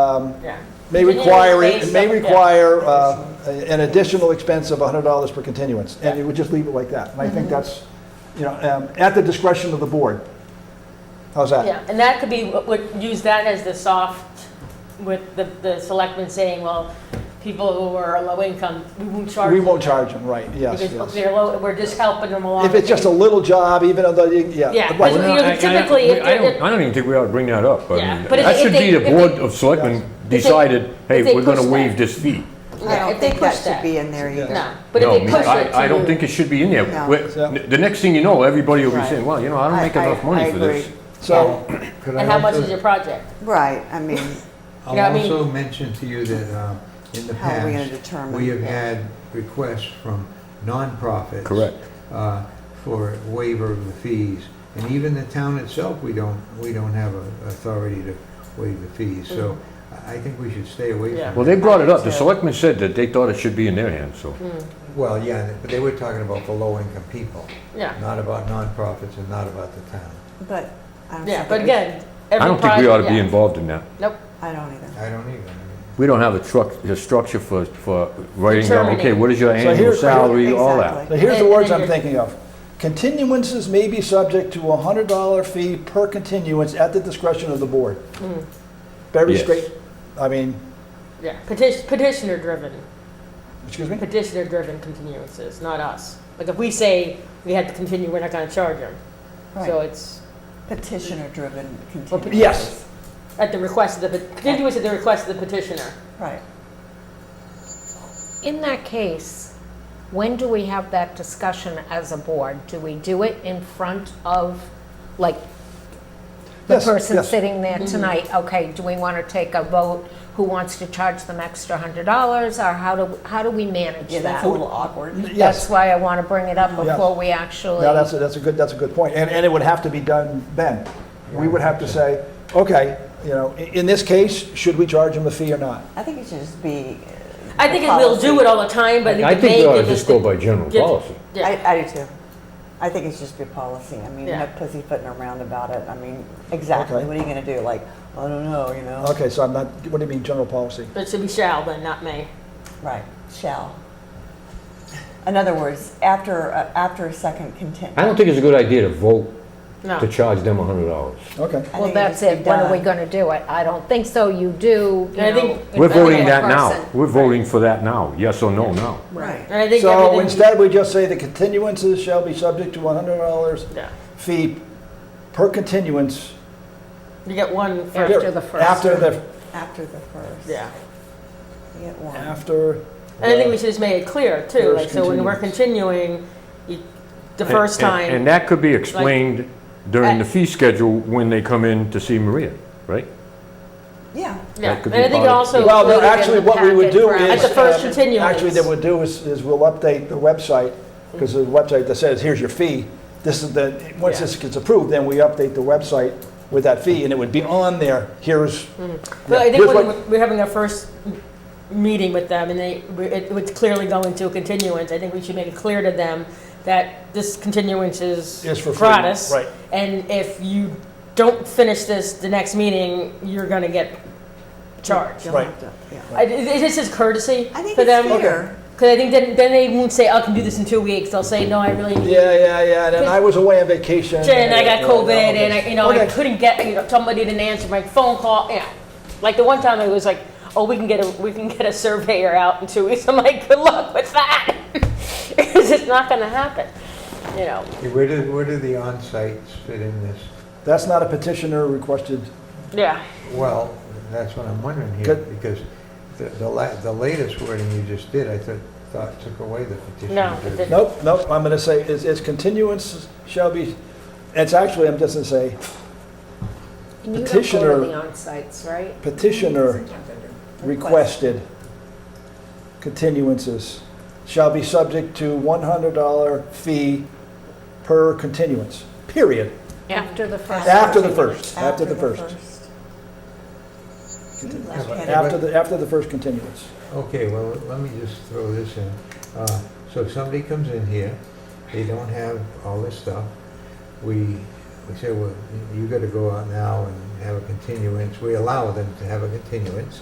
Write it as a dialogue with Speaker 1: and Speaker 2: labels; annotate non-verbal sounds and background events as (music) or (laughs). Speaker 1: um,
Speaker 2: Yeah.
Speaker 1: may
Speaker 2: Engineering
Speaker 1: require, it
Speaker 2: based
Speaker 1: may
Speaker 2: on- yeah.
Speaker 1: require uh, a- an additional expense of $100 per continuance, and
Speaker 2: Yeah. Mm-hmm.
Speaker 1: you would just leave it like that. And I think that's, you know, um, at the discretion of the board. How's that?
Speaker 2: Yeah, and that could be, would use that as the soft, with the, the selectmen saying, well, people who are low income, we won't charge.
Speaker 1: We
Speaker 2: them
Speaker 1: won't charge them, right, yes,
Speaker 2: Because
Speaker 1: yes.
Speaker 2: they're low, we're just helping them along.
Speaker 1: If it's just a little job, even though, you- yeah.
Speaker 2: Yeah,
Speaker 1: right.
Speaker 2: but
Speaker 3: Well, no,
Speaker 2: you know,
Speaker 3: I- I-
Speaker 2: typically,
Speaker 3: we-
Speaker 2: if
Speaker 3: I
Speaker 2: they-
Speaker 3: don't, I don't even think we ought to bring that up. I
Speaker 2: Yeah,
Speaker 3: mean,
Speaker 2: but if
Speaker 3: That
Speaker 2: they-
Speaker 3: should
Speaker 2: if
Speaker 3: be
Speaker 2: they-
Speaker 3: the
Speaker 2: if
Speaker 3: board
Speaker 2: they-
Speaker 3: of selectmen
Speaker 2: they-
Speaker 3: decided, hey,
Speaker 2: if they
Speaker 3: we're gonna
Speaker 2: push that.
Speaker 3: waive this fee.
Speaker 4: I
Speaker 2: Yeah,
Speaker 4: don't
Speaker 2: if they
Speaker 4: think
Speaker 2: push
Speaker 4: that should
Speaker 2: that.
Speaker 4: be in there either.
Speaker 2: No, but if
Speaker 3: No,
Speaker 2: they push
Speaker 3: I-
Speaker 2: it
Speaker 3: I don't
Speaker 2: to-
Speaker 3: think it should be in there.
Speaker 4: No.
Speaker 3: We're-
Speaker 1: So-
Speaker 3: The next thing you know, everybody will be
Speaker 4: Right.
Speaker 3: saying, well, you know, I don't
Speaker 4: I-
Speaker 3: make enough
Speaker 4: I-
Speaker 3: money
Speaker 4: I
Speaker 3: for this.
Speaker 4: agree.
Speaker 1: So,
Speaker 5: Could I
Speaker 2: And how much
Speaker 5: also-
Speaker 2: is your project?
Speaker 4: Right, I mean,
Speaker 2: You know, I
Speaker 5: I'll
Speaker 2: mean-
Speaker 5: also mention to you that uh, in the
Speaker 4: How are we gonna
Speaker 5: past,
Speaker 4: determine?
Speaker 5: we have had requests from nonprofits.
Speaker 3: Correct.
Speaker 5: uh, For waiver of the fees. And even the town itself, we don't, we don't have a- authority to waive the fees. So I I think we should stay away
Speaker 2: Mm. Yeah.
Speaker 3: Well,
Speaker 5: from
Speaker 3: they
Speaker 5: it.
Speaker 3: brought it up. The selectmen said that they thought it should be in their hands, so.
Speaker 5: Well, yeah, but they were talking about the low-income people,
Speaker 2: Yeah,
Speaker 5: not about nonprofits and not about the town.
Speaker 4: but I don't
Speaker 2: yeah,
Speaker 4: think
Speaker 2: but
Speaker 4: it-
Speaker 2: again, every
Speaker 3: I don't think we ought to be
Speaker 2: project-
Speaker 3: involved in that.
Speaker 2: yeah. Nope,
Speaker 4: I don't either.
Speaker 5: I don't even. I mean,
Speaker 3: We don't have a truck, a structure for, for writing down, okay,
Speaker 2: Determining.
Speaker 3: what is your annual
Speaker 1: here's-
Speaker 3: salary, all that.
Speaker 4: Exactly.
Speaker 1: so here's the
Speaker 2: And-
Speaker 1: words
Speaker 2: and
Speaker 1: I'm
Speaker 2: you're-
Speaker 1: thinking of. Continuances may be subject to a $100 fee per continuance at the discretion of the board.
Speaker 2: Mm.
Speaker 1: Very
Speaker 3: Yes.
Speaker 1: straight, I mean,
Speaker 2: yeah, petition, petitioner driven,
Speaker 1: excuse me?
Speaker 2: petitioner driven continuances, not us. Like if we say we had to continue, we're not gonna charge them. So
Speaker 4: Right.
Speaker 2: it's
Speaker 4: Petitioner-driven continuances.
Speaker 1: Yes.
Speaker 2: at the request of the, continuance at the request of the petitioner.
Speaker 4: Right.
Speaker 6: In that case, when do we have that discussion as a board? Do we do it in front of, like, the
Speaker 1: Yes,
Speaker 6: person
Speaker 1: yes.
Speaker 6: sitting
Speaker 4: Mm-hmm.
Speaker 6: there tonight? Okay, do we want to take a vote? Who wants to charge them extra hundred dollars? Or how do, how do we manage
Speaker 4: Yeah, that's a
Speaker 6: that?
Speaker 4: little awkward.
Speaker 1: Yes.
Speaker 6: That's why I want to bring it up
Speaker 1: Yes.
Speaker 6: before we actually.
Speaker 1: No, that's, a- that's a good, that's a good point. And, and it would have to be done then. We would have to say, okay, you know, i- in this case, should we charge them a fee or not?
Speaker 4: I think it should just be.
Speaker 2: I think it- we'll do it all the time, but
Speaker 3: I
Speaker 2: the
Speaker 3: think we
Speaker 2: main
Speaker 3: ought to
Speaker 2: thing is
Speaker 3: just go
Speaker 2: to
Speaker 3: by general
Speaker 2: get-
Speaker 3: policy.
Speaker 2: Yeah,
Speaker 4: I, I do too. I think it should just be policy. I mean,
Speaker 2: Yeah.
Speaker 4: no pussyfooting around about it. I mean, exactly.
Speaker 1: Okay.
Speaker 4: What are you gonna do? Like, I don't know, you know?
Speaker 1: Okay, so I'm not, what do you mean, general policy?
Speaker 2: but it should be shall, then not may.
Speaker 4: Right, shall. In other words, after, uh, after a second content.
Speaker 3: I don't think it's a good idea to vote
Speaker 2: No.
Speaker 3: to charge them a hundred dollars.
Speaker 1: Okay.
Speaker 4: I
Speaker 6: Well,
Speaker 4: think it
Speaker 6: that's
Speaker 4: should be
Speaker 6: it. When are we
Speaker 4: done.
Speaker 6: going to do it? I don't think so. You do, you
Speaker 2: And I think-
Speaker 6: know,
Speaker 3: We're
Speaker 6: in front of
Speaker 3: voting
Speaker 6: the
Speaker 3: that now.
Speaker 6: person.
Speaker 3: We're voting for that now, yes or no now.
Speaker 4: Right.
Speaker 2: And I think
Speaker 1: So
Speaker 2: everything-
Speaker 1: instead, we just say the continuances shall be subject to $100
Speaker 2: Yeah.
Speaker 1: fee per continuance.
Speaker 2: You get one for,
Speaker 6: After the first
Speaker 1: After the,
Speaker 4: After the first.
Speaker 2: yeah.
Speaker 4: We get one.
Speaker 1: after.
Speaker 2: And I think we should just make it clear too, like,
Speaker 1: First
Speaker 2: so when we're continuing, you- the first
Speaker 3: And- and-
Speaker 2: time.
Speaker 3: And that could be explained during the
Speaker 2: At-
Speaker 3: fee schedule when they come in to see Maria, right?
Speaker 4: Yeah.
Speaker 2: Yeah,
Speaker 3: That could
Speaker 2: and
Speaker 3: be
Speaker 2: I think
Speaker 3: part of-
Speaker 2: also.
Speaker 1: Well, no,
Speaker 6: included in
Speaker 1: actually,
Speaker 6: the
Speaker 1: what we would
Speaker 6: packet
Speaker 1: do
Speaker 6: for-
Speaker 1: is.
Speaker 6: At
Speaker 2: the first
Speaker 1: um,
Speaker 2: continuance.
Speaker 1: Actually, that we'll do is, is we'll update the website, because the website that says, here's your fee. This is the, once
Speaker 2: Yeah.
Speaker 1: this gets approved, then we update the website with that fee, and it would be on there, here's.
Speaker 2: But I
Speaker 1: here's
Speaker 2: think when
Speaker 1: what-
Speaker 2: we're- we're having our first m- meeting with them and they, we- it would clearly go into a continuance, I think we should make it clear to them that this continuance is
Speaker 1: Is for free,
Speaker 2: gratis.
Speaker 1: right.
Speaker 2: And if you don't finish this the next meeting, you're gonna get charged.
Speaker 4: You'll
Speaker 1: Right.
Speaker 4: have to- yeah.
Speaker 2: I- it- It's just as courtesy
Speaker 4: I think
Speaker 2: for
Speaker 4: it's
Speaker 2: them.
Speaker 4: fair.
Speaker 2: Because I think then, then they won't say, "Oh, I can do this in two weeks. They'll say, no, I really need
Speaker 1: Yeah, yeah, yeah, and then I was away on vacation.
Speaker 2: and I got
Speaker 1: yeah,
Speaker 2: COVID,
Speaker 1: yeah, okay.
Speaker 2: and I, you know, I
Speaker 1: Okay.
Speaker 2: couldn't get, you know, somebody didn't answer my phone call, yeah. Like the one time it was like, oh, we can get a, we can get a surveyor out in two weeks, I'm like, good luck with that. (laughs) It's just not gonna happen, you know,
Speaker 5: Hey, Where do, where do the on-sites fit in this?
Speaker 1: That's not a petitioner requested,
Speaker 2: yeah.
Speaker 5: Well, that's what I'm wondering here,
Speaker 1: Good.
Speaker 5: because the, the la, the latest wording you just did, I thought, thought took away the petition.
Speaker 2: No, it didn't.
Speaker 1: nope, nope, I'm gonna say, it's, it's continuance shall be, it's actually, I'm just gonna say
Speaker 6: And you have
Speaker 1: Petitioner-
Speaker 6: voted the onsites, right?
Speaker 1: petitioner requested continuances shall be subject to $100 fee per continuance, period.
Speaker 6: After the first.
Speaker 1: After the first, after the first.
Speaker 4: Okay.
Speaker 1: After the, after the first continuance.
Speaker 5: Okay, well, let me just throw this in. Uh, So if somebody comes in here, they don't have all this stuff, we, we say, well, you gotta go out now and have a continuance, we allow them to have a continuance.